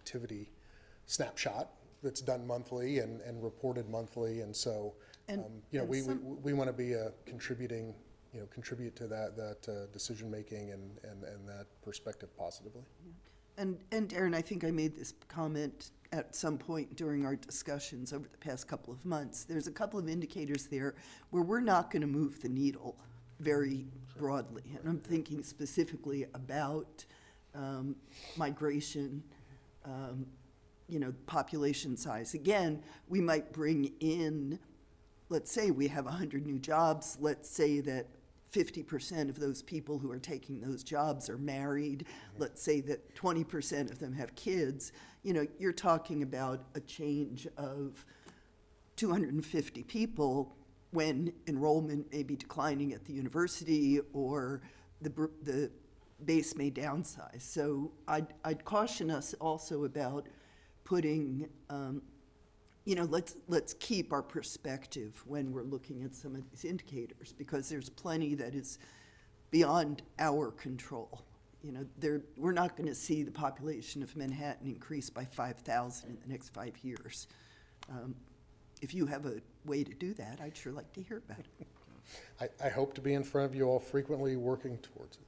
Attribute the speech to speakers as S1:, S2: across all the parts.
S1: activity snapshot that's done monthly and, and reported monthly. And so,
S2: And-
S1: um, you know,
S2: and
S1: we, we,
S2: some-
S1: we want to be a contributing, you know, contribute to that, that uh, decision-making and, and, and that perspective positively.
S2: And, and Darren, I think I made this comment at some point during our discussions over the past couple of months. There's a couple of indicators there where we're not going to move the needle very broadly. And I'm thinking specifically about um, migration, um, you know, population size. Again, we might bring in, let's say we have 100 new jobs, let's say that 50% of those people who are taking those jobs are married, let's say that 20% of them have kids, you know, you're talking about a change of 250 people when enrollment may be declining at the university or the, br- the base may downsize. So I'd, I'd caution us also about putting, um, you know, let's, let's keep our perspective when we're looking at some of these indicators because there's plenty that is beyond our control. You know, there, we're not going to see the population of Manhattan increase by 5,000 in the next five years. Um, if you have a way to do that, I'd sure like to hear about it.
S1: I, I hope to be in front of you all frequently working towards it.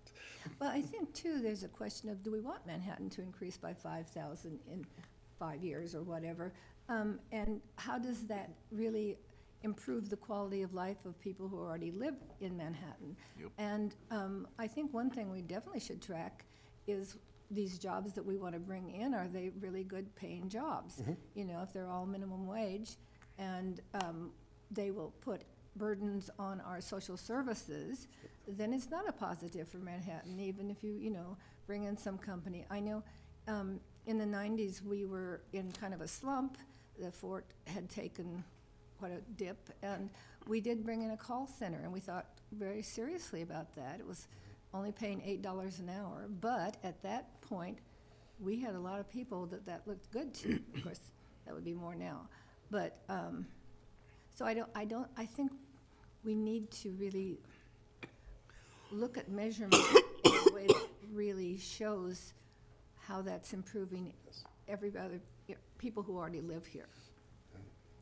S3: Well, I think too, there's a question of, do we want Manhattan to increase by five thousand in five years or whatever? Um, and how does that really improve the quality of life of people who already live in Manhattan? And, um, I think one thing we definitely should track is these jobs that we want to bring in, are they really good paying jobs? You know, if they're all minimum wage, and um, they will put burdens on our social services, then it's not a positive for Manhattan, even if you, you know, bring in some company. I know um, in the 90s, we were in kind of a slump. The fort had taken what a dip. And we did bring in a call center, and we thought very seriously about that. It was only paying eight dollars an hour, but at that point, we had a lot of people that that looked good to. of course, that would be more now, but um, so I don't. I don't. I think we need to really look at measurement in a way that really shows how that's improving every other people who already live here.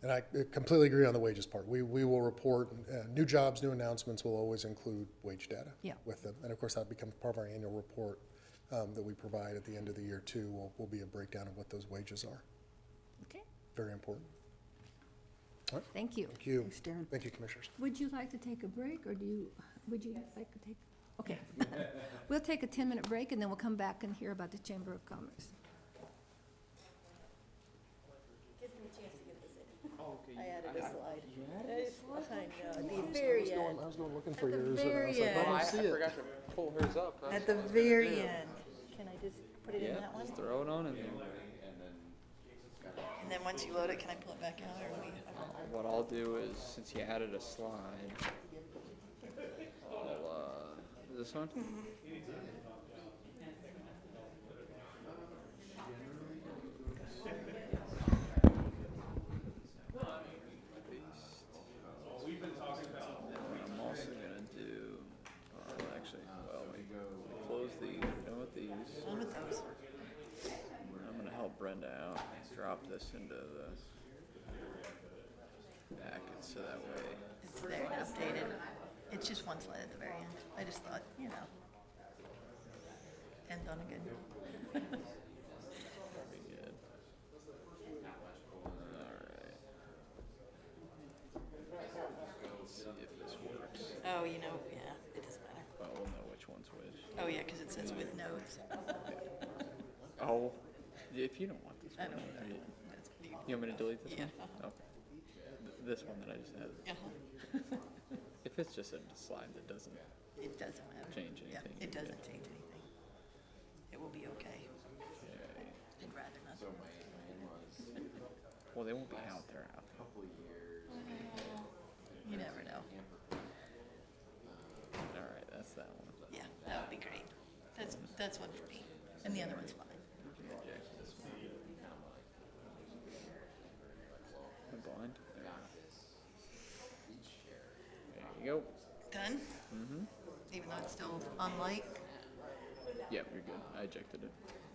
S1: And I completely agree on the wages part. We, we will report, uh, new jobs, new announcements will always include wage data
S3: Yeah.
S1: with them. And of course, that becomes part of our annual report um, that we provide at the end of the year too, will, will be a breakdown of what those wages are.
S3: Okay.
S1: Very important.
S3: Thank you.
S1: Thank you.
S2: Thanks, Darren.
S1: Thank you, Commissioners.
S3: Would you like to take a break, or do you, would you like to take? Okay. We'll take a 10-minute break, and then we'll come back and hear about the Chamber of Commerce.
S4: very
S1: I
S4: end,
S1: was going looking for yours and I was
S4: very
S1: like,
S4: end.
S1: I
S5: I, I
S1: don't see it.
S5: forgot to pull hers up. That's
S4: at the
S5: what I was gonna
S4: very
S5: do.
S4: end. Can I just put it in
S5: Yeah,
S4: that one?
S5: just throw it on and then
S4: And then once you load it, can I pull it back out or we?
S5: what I'll do is, since you added a slide, I'll, uh, this one? I'm also gonna do, well, actually, well, we close the, done with these.
S4: Done with those.
S5: I'm gonna help Brenda out, drop this into the packet so that way.
S4: It's there, updated. It's just one slide at the very end. I just thought, you know. End on a good.
S5: Pretty good. Alright. Let's see if this works.
S4: Oh, you know, yeah, it doesn't matter.
S5: Well, we'll know which one's which.
S4: Oh, yeah, because it says with notes.
S5: Oh, if you don't want this
S4: I
S5: one,
S4: don't know.
S5: then you-
S4: That's pretty-
S5: you want me to delete this one?
S4: Yeah, uh-huh.
S5: Okay. Th- This one that I just had.
S4: Uh-huh.
S5: If it's just a slide that doesn't,
S4: It doesn't matter.
S5: Change
S4: Yeah,
S5: anything, you're
S4: It
S5: good.
S4: doesn't change anything. It will be okay. I'd rather not.
S5: well, they won't be out there, out there.
S4: You never know.
S5: Alright, that's that one.
S4: Yeah, that would be great. That's, that's one for me. And the other one's fine.
S5: I'm blind. There we go. There you
S4: Done? Mm-hmm. Even though it's still on light?
S5: go. Yep, you're good. I ejected it.